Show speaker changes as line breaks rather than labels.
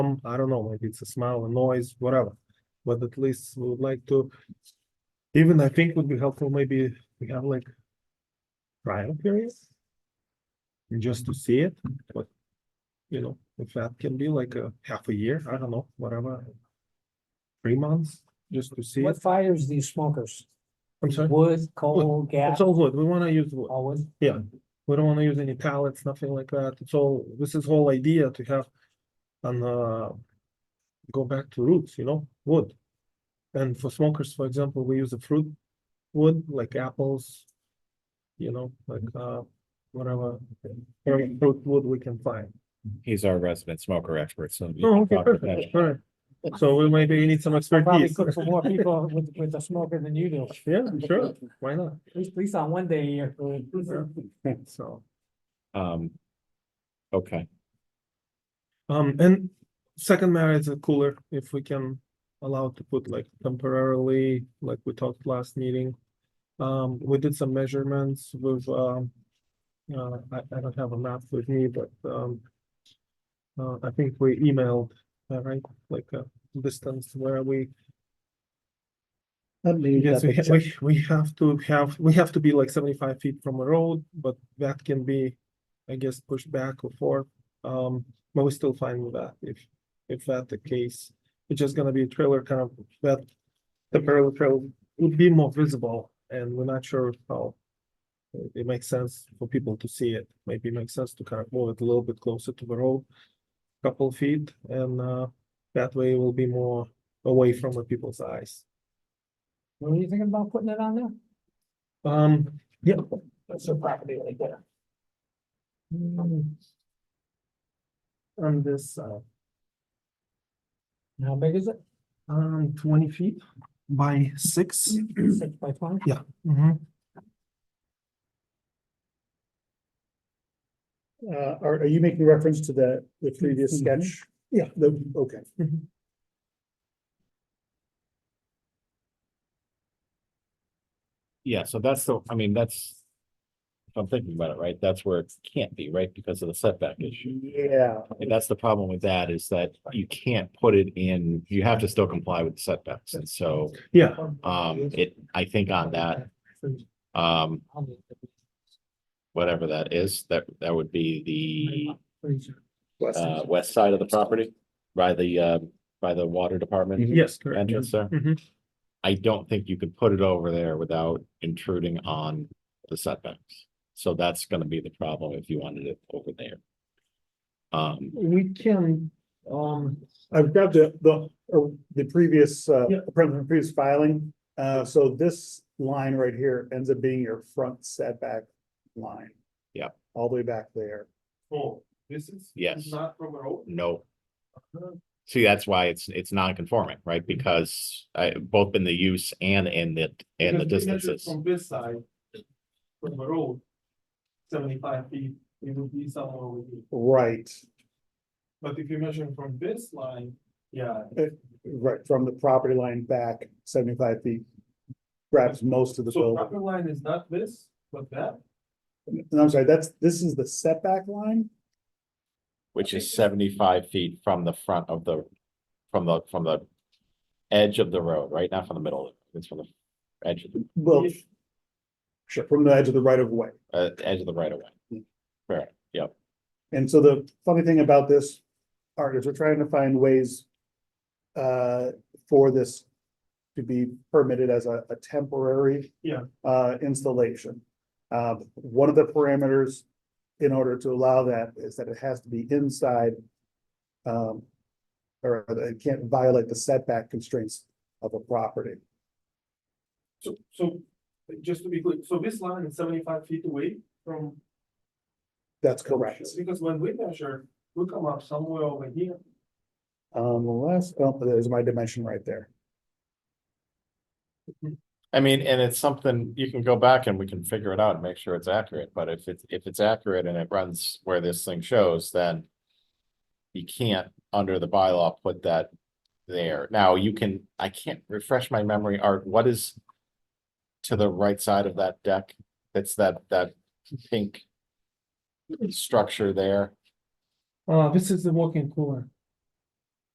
some, I don't know, maybe it's a smell, a noise, whatever. But at least we would like to, even I think would be helpful, maybe we have like trial period. and Just to see it, but, you know, if that can be like a half a year, I don't know, whatever. Three months, just to see it.
What fires do you smokers?
I'm sorry,
Wood, coal,
it's
gas,
all wood, we wanna use wood.
all wood?
Yeah, we don't wanna use any pallets, nothing like that. It's all, this is whole idea to have an uh go back to roots, you know, wood. And for smokers, for example, we use a fruit wood like apples, you know, like uh whatever whatever fruit wood we can find.
He's our resident smoker expert, so. you
Oh,
can
okay,
talk to him.
perfect. All right. So we maybe need some
Probably
expertise.
cook for more people with, with a smoker than you do, at
Yeah, sure, why not?
least, at least on one day a year.
So.
Um. Okay,
Um, and second matter is a cooler, if we can allow to put like temporarily, like we talked last meeting. Um, we did some measurements with, um, uh, I, I don't have a map with me, but, um, uh, I think we emailed, uh, right, like, uh, distance where we,
I believe
yes,
that
we, ha-
it's-
we, we have to have, we have to be like seventy-five feet from a road, but that can be, I guess, pushed back or forth. Um, but we're still fine with that, if, if that the case. It's just gonna be a trailer kind of, that the parallel trail would be more visible, and we're not sure how it- it makes sense for people to see it. Maybe it makes sense to kind of move it a little bit closer to the road, couple feet, and, uh, that way it will be more away from the people's eyes.
Were you thinking about putting it on there?
Um, yeah,
That's a property right there. Hmm,
on this, uh,
How big is it?
um, twenty feet by 6
Six by twenty?
Mhm.
uh, are, are you making reference to the, the previous
Mhm.
sketch?
Yeah.
The, okay.
Mhm.
yeah, so that's the, I mean, that's. If I'm thinking about it, right, that's where it can't be, right, because of the setback issue.
Yeah,
And that's the problem with that is that you can't put it in, you have to still comply with the setbacks, and so,
Yeah,
um, it, I think on that, um, whatever that is, that, that would be the, uh, west side of the property. By the, uh, by the water department
yes, correct.
entrance there.
Mhm.
I don't think you could put it over there without intruding on the setbacks. So that's gonna be the problem if you wanted it over there. Um,
We can, um,
I've got the, the, uh, the previous, uh,
Yeah.
from previous filing. Uh, so this line right here ends up being your front setback line.
Yeah.
All the way back there.
Oh, this is.
Yes.
Not from a road.
no, see, that's why it's, it's non-conforming, right? Because I, both in the use and in the, and the
Because we measured
distances.
From this side, from the road, seventy-five feet, it would be somewhere over here.
Right,
But if you measure from this line, yeah.
right, from the property line back seventy-five feet. Grabs most of the
So
building.
proper line is not this, but that.
And I'm sorry, that's, this is the setback line?
Which is seventy-five feet from the front of the, from the, from the edge of the road, right? Not from the middle, it's from the edge of the,
Well,
Yes.
sure, from the edge of the right of way.
uh, edge of the right of way. Fair, yep,
And so the funny thing about this art is we're trying to find ways uh, for this to be permitted as a, a temporary
Yeah.
uh, installation. Uh, one of the parameters in order to allow that is that it has to be inside um, or that it can't violate the setback constraints of a property.
So, so, just to be clear, so this line is seventy-five feet away from.
That's correct.
Because when we measure, we come up somewhere over here.
Unless, oh, there's my dimension right there.
I mean, and it's something, you can go back and we can figure it out and make sure it's accurate, but if it's, if it's accurate and it runs where this thing shows, then. You can't, under the bylaw, put that there. Now, you can, I can't refresh my memory, Art, what is? To the right side of that deck, it's that, that pink. Structure there,
Uh, this is the walk-in cooler.